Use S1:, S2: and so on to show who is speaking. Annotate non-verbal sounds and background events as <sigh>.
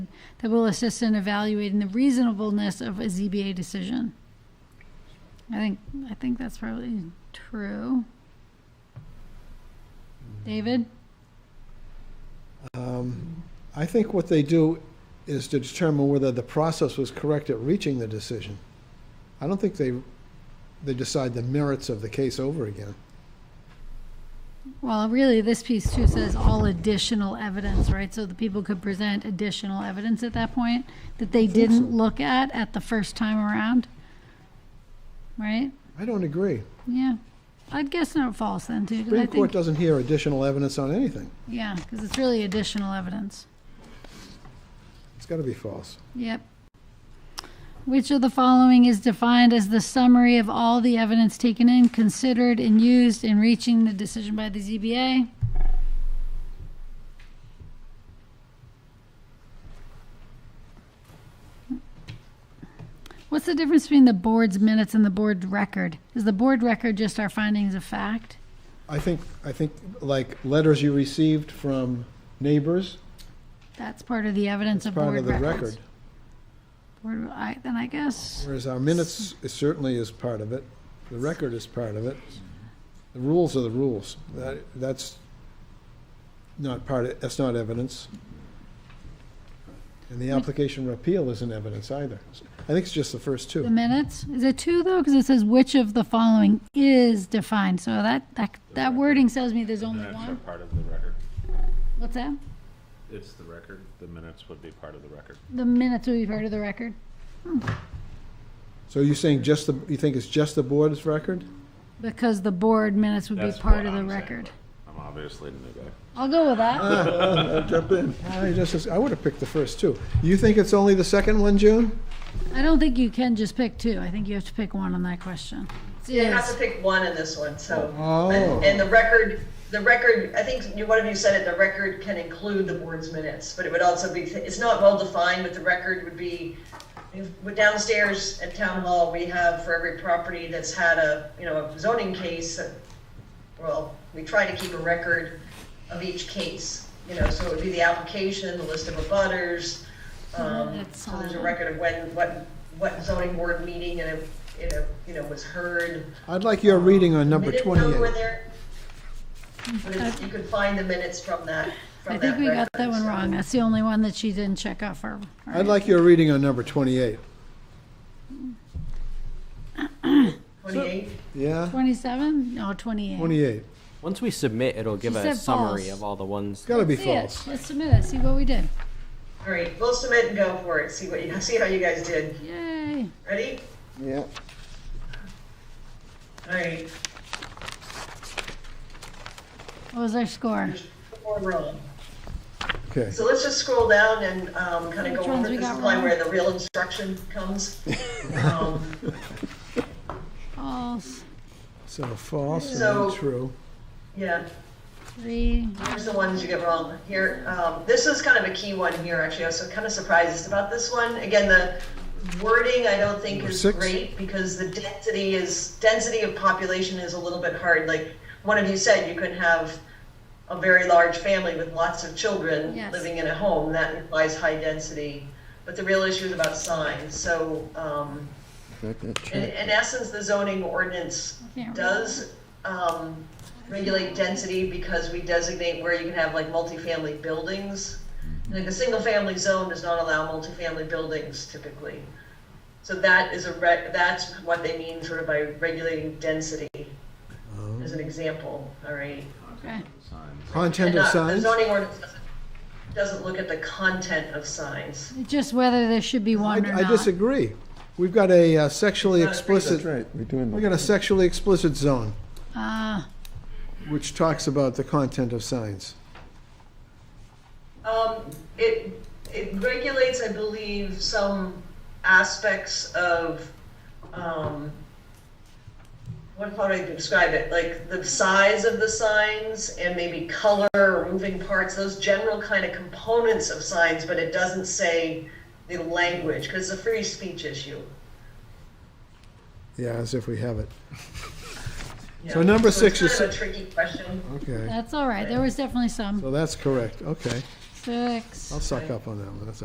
S1: that will assist in evaluating the reasonableness of a ZBA decision. I think, I think that's probably true. David?
S2: I think what they do is to determine whether the process was correct at reaching the decision. I don't think they, they decide the merits of the case over again.
S1: Well, really, this piece too says all additional evidence, right? So the people could present additional evidence at that point that they didn't look at at the first time around, right?
S2: I don't agree.
S1: Yeah, I'd guess not false then too, 'cause I
S2: Supreme Court
S1: think,
S2: doesn't hear additional evidence on anything.
S1: yeah, because it's really additional evidence.
S2: It's got to be false.
S1: Yep. Which of the following is defined as the summary of all the evidence taken in, considered, and used in reaching the decision by the ZBA? What's the difference between the board's minutes and the board record? Is the board record just our findings of fact?
S2: I think, I think like letters you received from neighbors,
S1: That's part of the evidence
S2: it's
S1: of
S2: part
S1: board
S2: of the
S1: records.
S2: record.
S1: Board, I, then I guess,
S2: Whereas our minutes is- certainly is part of it, the record is part of it. The rules are the rules. That, that's not part, of- that's not evidence. And the application of appeal isn't evidence either. I think it's just the first
S1: the
S2: two.
S1: minutes, is it two though? Because it says which of the following is defined, so that, that, that wording tells me there's only
S3: Minutes are
S1: one.
S3: part of the record.
S1: What's that?
S3: It's the record. The minutes would be part of the record.
S1: The minutes will be part of the record.
S2: So you're saying just the, you think it's just the board's record?
S1: Because the board minutes would be
S3: That's
S1: part
S3: what
S1: of the
S3: I'm saying,
S1: record.
S3: but I'm obviously the new guy.
S1: I'll go with that.
S2: Jump in. I just, I would have picked the first two. You think it's only the second one, June?
S1: I don't think you can just pick two. I think you have to pick one on that question.
S4: You have to
S1: Is,
S4: pick one in this one, so.
S2: Oh.
S4: And and the record, the record, I think you- one of you said it, the record can include the board's minutes, but it would also be, it's not well defined, but the record would be, with downstairs at town hall, we have for every property that's had a, you know, a zoning case, uh, well, we try to keep a record of each case, you know, so it would be the application, the list of abutters, um,
S1: That's
S4: so there's a
S1: all.
S4: record of when, what, what zoning board meeting and if, you know, you know, was heard.
S2: I'd like your reading on number
S4: Minutes don't go in
S2: 28.
S4: there, But it's- you could find the minutes from that,
S1: I
S4: from that
S1: think we got that
S4: record,
S1: one
S4: so.
S1: wrong. That's the only one that she didn't check off her.
S2: I'd like your reading on number 28.
S4: 28?
S2: Yeah?
S1: Twenty-seven? No, twenty-eight.
S2: 28.
S5: Once we submit, it'll give
S1: She
S5: a
S1: said
S5: summary
S1: false.
S5: of all the ones.
S2: It's got to be
S1: See it.
S2: false.
S1: Let's submit it, see what we did.
S4: All right, we'll submit and go for it, see what you, see how you guys did.
S1: Yay.
S4: Ready?
S2: Yeah.
S4: All right,
S1: What was our score?
S4: four wrong.
S2: Okay.
S4: So let's just scroll down and, um, kind
S1: Which
S4: of go
S1: ones
S4: over
S1: we
S4: this
S1: got
S4: line
S1: wrong?
S4: where the real instruction comes.
S2: <laughs>
S4: Um,
S1: False,
S2: So false
S4: So-
S2: and true.
S4: Yeah,
S1: three,
S4: here's the ones you get wrong. Here, um, this is kind of a key one here, actually. I was kind of surprised about this one. Again, the wording I don't think
S2: Number
S4: is
S2: six.
S4: great because the density is, density of population is a little bit hard. Like, one of you said you could have a very large family with lots of children
S1: Yes.
S4: living in a home. That implies high density. But the real issue is about signs. So, um, in, in essence, the zoning ordinance
S1: can't read.
S4: does, um, regulate density because we designate where you can have like multifamily buildings. Like a single-family zone does not allow multifamily buildings typically. So that is a rec, that's what they mean sort of by regulating density, as an example, all right?
S1: okay.
S3: Signs.
S2: Content of
S4: And not- The
S2: signs?
S4: zoning ordinance doesn't- doesn't look at the content of signs.
S1: Just whether there should be
S2: I
S1: one or
S2: I
S1: not.
S2: disagree. We've got a uh, sexually
S4: That's right.
S2: explicit. right, we're doing. We've got a sexually explicit zone,
S1: Ah,
S2: which talks about the content of signs.
S4: Um, it, it regulates, I believe, some aspects of, um, what, how do I describe it? Like the size of the signs and maybe color or moving parts, those general kind of components of signs, but it doesn't say the language, because it's a free speech issue.
S2: Yeah, as if we have it.
S4: you
S2: So
S4: know.
S2: number
S4: it's
S2: six is
S4: Kind of a tricky question.
S2: Okay.
S1: Uh, that's all right. There was definitely some.
S2: So that's correct. Okay.
S1: Six.
S2: I'll suck up on that one. That's